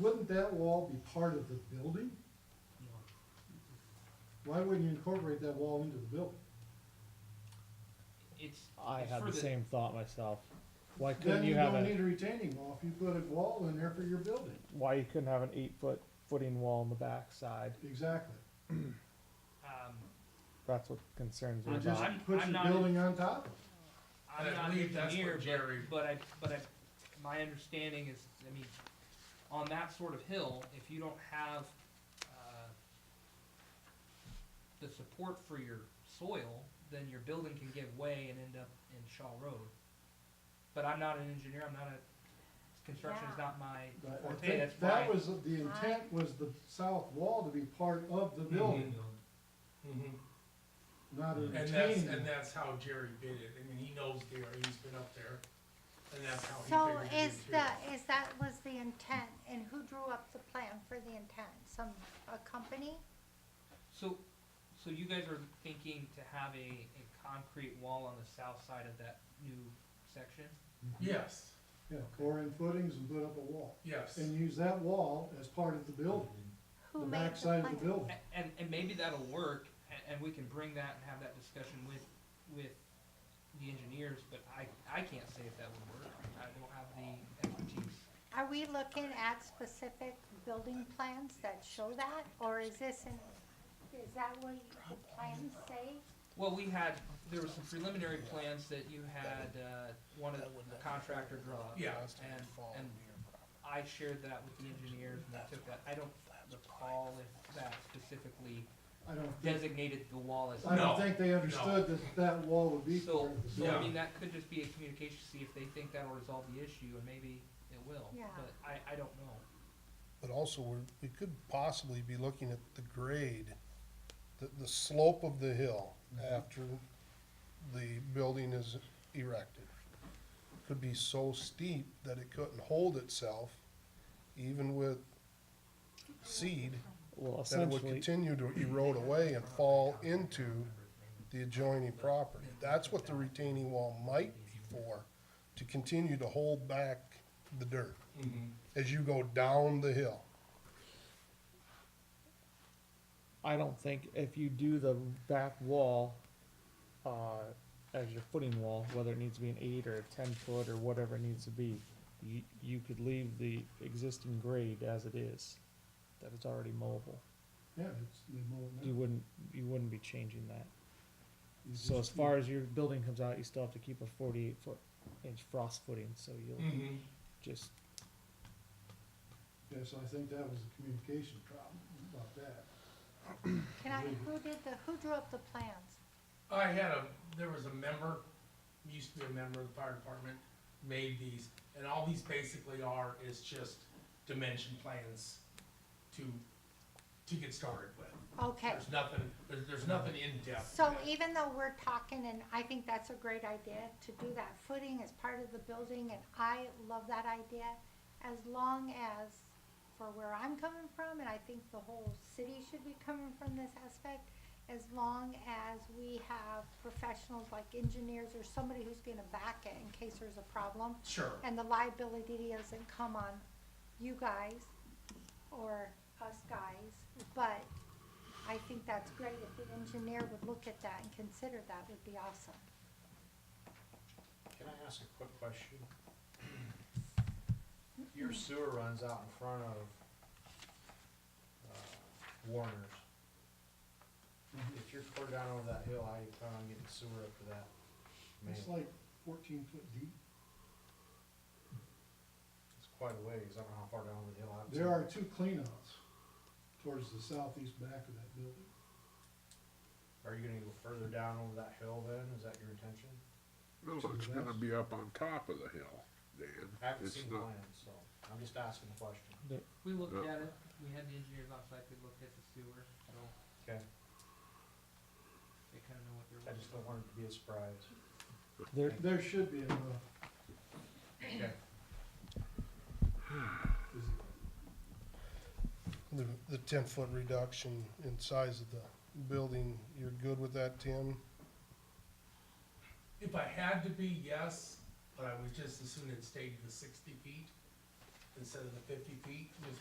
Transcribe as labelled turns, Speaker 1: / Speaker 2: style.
Speaker 1: wouldn't that wall be part of the building? Why wouldn't you incorporate that wall into the building?
Speaker 2: It's,
Speaker 3: I
Speaker 2: It's
Speaker 3: had
Speaker 2: for
Speaker 3: the
Speaker 2: the-
Speaker 3: same thought myself. Why
Speaker 1: Then
Speaker 3: couldn't
Speaker 1: you
Speaker 3: you have
Speaker 1: don't
Speaker 3: a,
Speaker 1: need a retaining wall if you put a wall in there for your building.
Speaker 3: why you couldn't have an eight foot footing wall on the back side?
Speaker 1: Exactly.
Speaker 2: um,
Speaker 3: That's what concerns me
Speaker 1: Or
Speaker 2: I'm-
Speaker 1: just
Speaker 3: about.
Speaker 2: I'm-
Speaker 1: put
Speaker 2: I'm
Speaker 1: your
Speaker 2: not-
Speaker 1: building on top of it.
Speaker 2: I'm
Speaker 4: I
Speaker 2: not an
Speaker 4: believe that's what
Speaker 2: engineer,
Speaker 4: Jerry-
Speaker 2: but, but I, but I, my understanding is, I mean, on that sort of hill, if you don't have, uh, the support for your soil, then your building can give way and end up in Shaw Road. But I'm not an engineer, I'm not a, construction is
Speaker 5: Yeah.
Speaker 2: not my
Speaker 1: But I
Speaker 2: forte,
Speaker 1: think
Speaker 2: that's why.
Speaker 1: That was, the intent was the south wall to be part of the building,
Speaker 4: Mhm.
Speaker 1: not a
Speaker 4: Mm-hmm. And that's,
Speaker 1: retaining.
Speaker 4: and that's how Jerry did it, I mean, he knows the area, he's been up there, and that's how he
Speaker 5: So
Speaker 4: figured it
Speaker 5: is
Speaker 4: too.
Speaker 5: the, is that was the intent, and who drew up the plan for the intent? Some, a company?
Speaker 2: So, so you guys are thinking to have a, a concrete wall on the south side of that new section?
Speaker 4: Yes,
Speaker 1: Yeah, pour in footings and put up a wall,
Speaker 4: yes,
Speaker 1: and use that wall as part of the building,
Speaker 5: Who
Speaker 1: the
Speaker 5: made
Speaker 1: back
Speaker 5: the
Speaker 1: side of the
Speaker 5: plan?
Speaker 1: building.
Speaker 2: A- And, and maybe that'll work, and, and we can bring that and have that discussion with, with the engineers, but I, I can't say if that would work. I don't have the expertise.
Speaker 5: Are we looking at specific building plans that show that, or is this in, is that what the plans say?
Speaker 2: Well, we had, there were some preliminary plans that you had, uh, one of the contractor draw up.
Speaker 4: yeah,
Speaker 2: And, and I shared that with the engineers and they took that. I don't recall if that specifically
Speaker 1: I don't think,
Speaker 2: designated the wall as.
Speaker 1: I
Speaker 4: No,
Speaker 1: don't think they understood that that wall would be part
Speaker 2: So,
Speaker 1: of the
Speaker 2: so I
Speaker 1: building.
Speaker 2: mean, that could just be a communication, see if they think that'll resolve the issue, and maybe it will,
Speaker 5: Yeah.
Speaker 2: but I, I don't know.
Speaker 6: But also, we're, we could possibly be looking at the grade, the, the slope of the hill after the building is erected. Could be so steep that it couldn't hold itself, even with seed,
Speaker 3: Well,
Speaker 6: that it would
Speaker 3: essentially,
Speaker 6: continue to erode away and fall into the adjoining property. That's what the retaining wall might be for, to continue to hold back the dirt
Speaker 4: Mhm.
Speaker 6: as you go down the hill.
Speaker 3: I don't think if you do the back wall, uh, as your footing wall, whether it needs to be an eight or a ten foot or whatever it needs to be, you, you could leave the existing grade as it is, that it's already mowable.
Speaker 1: Yeah, it's, they mow it
Speaker 3: You
Speaker 1: now.
Speaker 3: wouldn't, you wouldn't be changing that.
Speaker 1: You
Speaker 3: So as
Speaker 1: just-
Speaker 3: far as your building comes out, you still have to keep a forty-eight foot inch frost footing, so you'll
Speaker 4: Mhm.
Speaker 3: just,
Speaker 1: Yeah, so I think that was a communication problem about that.
Speaker 5: Can I, who did the, who drew up the plans?
Speaker 4: I had a, there was a member, used to be a member of the fire department, made these, and all these basically are is just dimension plans to, to get started with.
Speaker 5: Okay,
Speaker 4: There's nothing, there's, there's nothing in depth.
Speaker 5: so even though we're talking, and I think that's a great idea, to do that footing as part of the building, and I love that idea, as long as, for where I'm coming from, and I think the whole city should be coming from this aspect, as long as we have professionals like engineers or somebody who's gonna back it in case there's a problem,
Speaker 4: Sure,
Speaker 5: and the liability doesn't come on you guys or us guys, but I think that's great. If the engineer would look at that and consider that would be awesome.
Speaker 7: Can I ask a quick question? Your sewer runs out in front of uh, Warner's.
Speaker 8: Mm-hmm.
Speaker 7: If you're clear down over that hill, how you plan on getting sewer up to that main?
Speaker 1: It's like fourteen foot deep.
Speaker 7: It's quite a ways, I don't know how far down over the hill. I haven't
Speaker 1: There
Speaker 7: seen
Speaker 1: are
Speaker 7: it.
Speaker 1: two cleanouts towards the southeast back of that building.
Speaker 7: Are you gonna go further down over that hill then? Is that your intention?
Speaker 8: No,
Speaker 1: To the
Speaker 8: it's gonna
Speaker 1: west.
Speaker 8: be up on top of the hill, Dan.
Speaker 7: I haven't
Speaker 8: It's
Speaker 7: seen
Speaker 8: not-
Speaker 7: plans, so I'm just asking a question.
Speaker 2: We looked
Speaker 8: Yeah.
Speaker 2: at it, we had the engineers on site, we looked at the sewer, so
Speaker 7: Okay,
Speaker 2: they kinda know what they're
Speaker 7: I
Speaker 2: looking
Speaker 7: just don't want it to be a surprise.
Speaker 3: there,
Speaker 1: There should be enough.
Speaker 7: Okay.
Speaker 1: Is
Speaker 6: The, the ten foot reduction in size of the building, you're good with that, Tim?
Speaker 4: if I had to be, yes, but I would just as soon it stayed to the sixty feet instead of the fifty feet, just